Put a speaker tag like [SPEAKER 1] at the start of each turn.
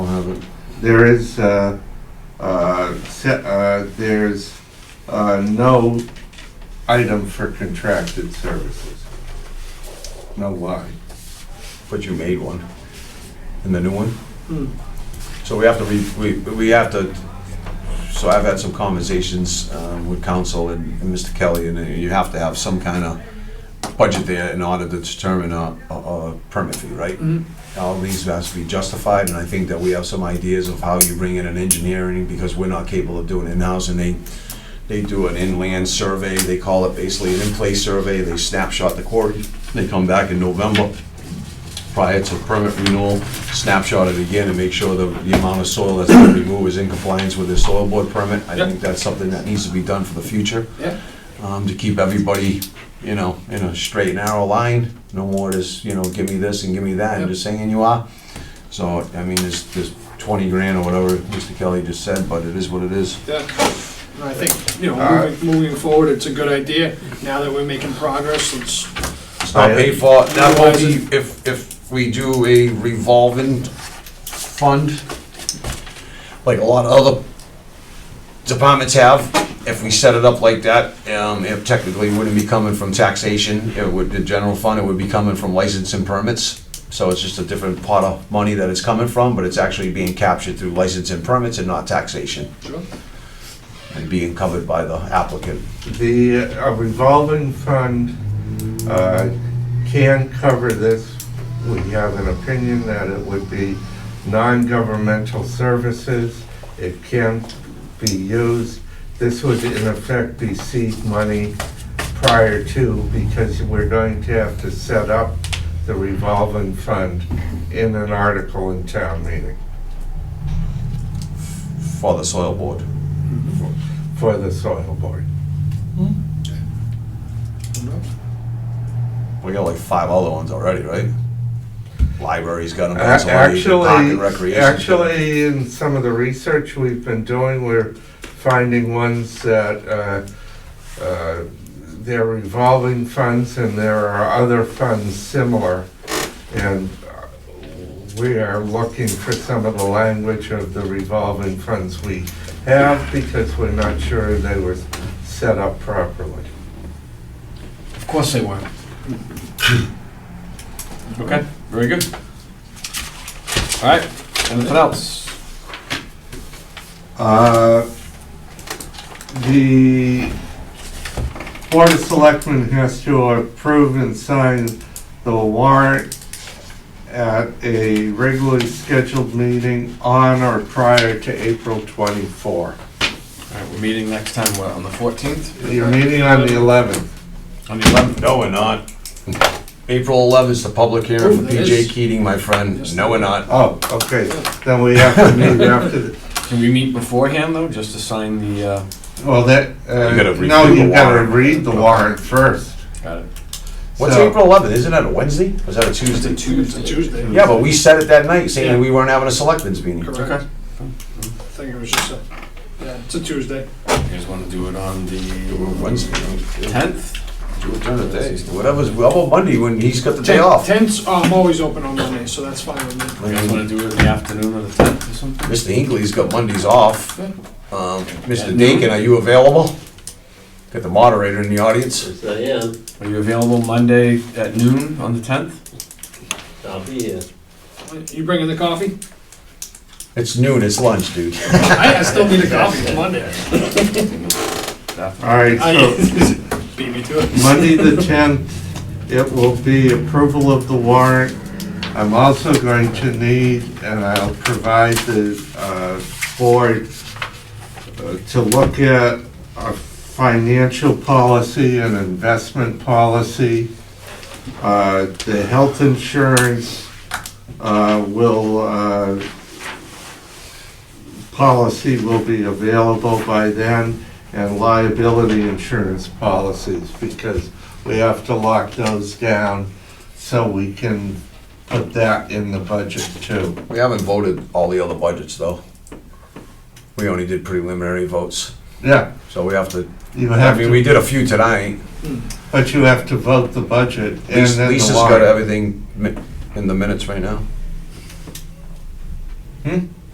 [SPEAKER 1] thousand. There is, uh, uh, se- uh, there's, uh, no item for contracted services. No line.
[SPEAKER 2] But you made one, and the new one. So we have to, re- we, we have to, so I've had some conversations um, with council and and Mr. Kelly, and uh, you have to have some kind of budget there in order to determine a, a- a permit fee, right? All these has to be justified, and I think that we have some ideas of how you bring in an engineering, because we're not capable of doing it in-house, and they, they do an inland survey, they call it basically an in-place survey, they snapshot the quarry, they come back in November, prior to permit renewal, snapshot it again and make sure the, the amount of soil that's gonna be moved is in compliance with the soil board permit. I think that's something that needs to be done for the future.
[SPEAKER 3] Yeah.
[SPEAKER 2] Um, to keep everybody, you know, in a straight and narrow line, no more just, you know, give me this and give me that, and just saying you are. So, I mean, there's, there's twenty grand or whatever Mr. Kelly just said, but it is what it is.
[SPEAKER 3] Yeah, and I think, you
[SPEAKER 1] All
[SPEAKER 3] know,
[SPEAKER 1] right.
[SPEAKER 3] moving, moving forward, it's a good idea. Now that we're making progress, it's,
[SPEAKER 2] It's not paid for, that will
[SPEAKER 3] Otherwise
[SPEAKER 2] be, if, if we do a revolving fund, like a lot of other departments have, if we set it up like that, um, it technically wouldn't be coming from taxation, it would, the general fund, it would be coming from license and permits. So it's just a different pot of money that it's coming from, but it's actually being captured through license and permits and not taxation, and being covered by the applicant.
[SPEAKER 1] The uh, revolving fund uh, can cover this. We have an opinion that it would be non-governmental services. It can be used. This would in effect be seed money prior to because we're going to have to set up the revolving fund in an article in town meeting
[SPEAKER 2] For the soil board.
[SPEAKER 1] for the soil board.
[SPEAKER 2] We got like five other ones already, right? Library's got them. Park and
[SPEAKER 1] Actually,
[SPEAKER 2] Recreation.
[SPEAKER 1] actually, in some of the research we've been doing, we're finding ones that, uh, uh, they're revolving funds and there are other funds similar. And uh, we are looking for some of the language of the revolving funds we have because we're not sure they were set up properly.
[SPEAKER 3] of course they were.
[SPEAKER 4] Okay, very good. All right, anything else?
[SPEAKER 1] Uh, The Board of Selectmen has to approve and sign the warrant at a regularly scheduled meeting on or prior to April 24.
[SPEAKER 4] All right, we're meeting next time, what, on the 14th?
[SPEAKER 1] You're meeting on the 11th.
[SPEAKER 4] On the 11th?
[SPEAKER 2] No, we're not. April 11th is the public hearing for
[SPEAKER 3] Oh, it
[SPEAKER 2] PJ
[SPEAKER 3] is.
[SPEAKER 2] Keating, my friend.
[SPEAKER 3] Yes.
[SPEAKER 2] No, we're not.
[SPEAKER 1] Oh, okay, then we have to meet after, the-
[SPEAKER 4] Can we meet beforehand, though, just to sign the, uh,
[SPEAKER 1] well, that, uh,
[SPEAKER 2] You gotta read
[SPEAKER 1] no,
[SPEAKER 2] through the
[SPEAKER 1] you gotta
[SPEAKER 2] warrant.
[SPEAKER 1] read the warrant first.
[SPEAKER 4] got it.
[SPEAKER 2] What's
[SPEAKER 1] So-
[SPEAKER 2] April 11th? Isn't that a Wednesday? Or is that a
[SPEAKER 4] It's a
[SPEAKER 2] Tuesday?
[SPEAKER 4] Tuesday.
[SPEAKER 3] Tuesday.
[SPEAKER 2] Yeah, but we said it that night, saying that we weren't having a selectmen's meeting.
[SPEAKER 3] Correct.
[SPEAKER 4] Okay.
[SPEAKER 3] I think it was just a, yeah, it's a Tuesday.
[SPEAKER 4] You guys want to do it on
[SPEAKER 2] Do it
[SPEAKER 4] the
[SPEAKER 2] Wednesday.
[SPEAKER 4] 10th?
[SPEAKER 2] Do it during the day. Whatever's, how about Monday when he's got the day off?
[SPEAKER 3] Tents, oh, I'm always open on Monday, so that's fine with me.
[SPEAKER 4] You guys want to do it in the afternoon of the 10th or something?
[SPEAKER 2] Mr. Hinckley's got Mondays off.
[SPEAKER 3] Yeah.
[SPEAKER 2] Um, Mr. Dakin, are you available? Got the moderator in the audience.
[SPEAKER 5] Yes, I am.
[SPEAKER 4] Are you available Monday at noon on the 10th?
[SPEAKER 5] I'll be here.
[SPEAKER 3] You bringing the coffee?
[SPEAKER 2] It's noon, it's lunch, dude.
[SPEAKER 3] I I still need a coffee, it's Monday.
[SPEAKER 4] Definitely.
[SPEAKER 1] All right, so.
[SPEAKER 3] I- Beat me to it.
[SPEAKER 1] Monday, the 10th, it will be approval of the warrant. I'm also going to need, and I'll provide the uh, board uh, to look at a financial policy and investment policy. Uh, The health insurance uh, will, uh, policy will be available by then, and liability insurance policies, because we have to lock those down so we can put that in the budget too.
[SPEAKER 2] We haven't voted all the other budgets, though. We only did preliminary votes,
[SPEAKER 1] Yeah,
[SPEAKER 2] so we have to,
[SPEAKER 1] you
[SPEAKER 2] I
[SPEAKER 1] have
[SPEAKER 2] mean, we
[SPEAKER 1] to,
[SPEAKER 2] did a few tonight.
[SPEAKER 1] but you have to vote the budget and
[SPEAKER 2] Lis-
[SPEAKER 1] then
[SPEAKER 2] Lisa's
[SPEAKER 1] the
[SPEAKER 2] got
[SPEAKER 1] warrant.
[SPEAKER 2] everything mi- in the minutes right now.
[SPEAKER 1] Hmm?